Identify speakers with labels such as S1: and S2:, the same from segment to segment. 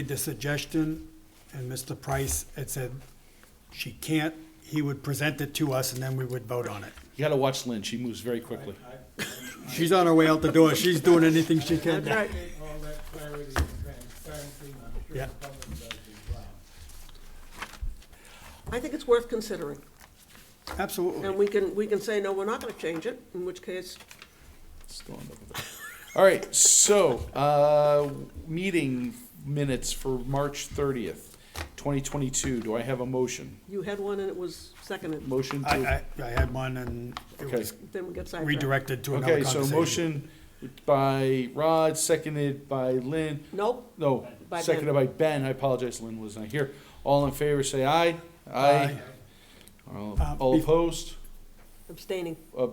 S1: made the suggestion, and Mr. Price had said she can't, he would present it to us, and then we would vote on it.
S2: You gotta watch Lynn, she moves very quickly.
S1: She's on her way out the door, she's doing anything she can.
S3: Right.
S4: Get all that clarity and transparency, and I'm sure
S1: Yeah.
S4: the public does as well.
S3: I think it's worth considering. And
S1: Absolutely.
S3: we can, we can say, no, we're not gonna change it, in which case,
S2: Still on the- All right, so, uh, meeting minutes for March thirtieth, twenty twenty-two, do I have a motion?
S3: you had one and it was seconded,
S2: Motion
S1: I,
S2: to,
S1: I, I had one, and it
S2: Okay.
S1: was
S3: then we get sidetracked.
S1: redirected to another
S2: okay, so
S1: conversation.
S2: motion by Rod, seconded by Lynn,
S3: Nope,
S2: no,
S3: By Ben.
S2: seconded by Ben, I apologize, Lynn was not here. All in favor, say aye.
S1: Aye.
S2: All
S1: Uh,
S2: all
S1: be-
S2: opposed?
S3: abstaining.
S2: Uh,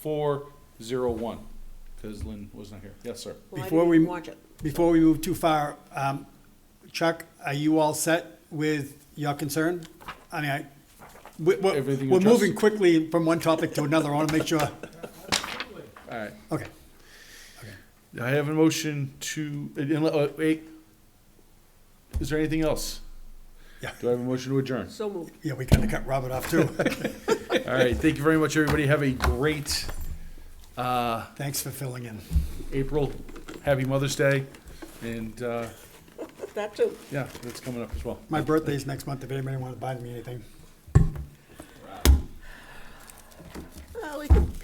S2: four, zero, one, because Lynn was not here. Yes, sir.
S3: Well, I
S1: Before
S3: didn't
S1: we-
S3: even watch it.
S1: Before we move too far, um, Chuck, are you all set with your concern? I mean, I, we, we're,
S2: Everything
S1: we're moving
S2: addressed?
S1: quickly from one topic to another, I wanna make sure,
S2: All right.
S1: okay.
S2: I have a motion to, uh, unle- uh, wait, is there anything else?
S1: Yeah.
S2: Do I have a motion to adjourn?
S3: So moved.
S1: Yeah, we kinda cut Robert off too.
S2: All right, thank you very much, everybody. Have a great uh,
S1: Thanks for filling in.
S2: April. Happy Mother's Day. And, uh,
S3: That too.
S2: yeah, that's coming up as well.
S1: My birthday's next month, if anybody wants to buy me anything.
S3: Well, we can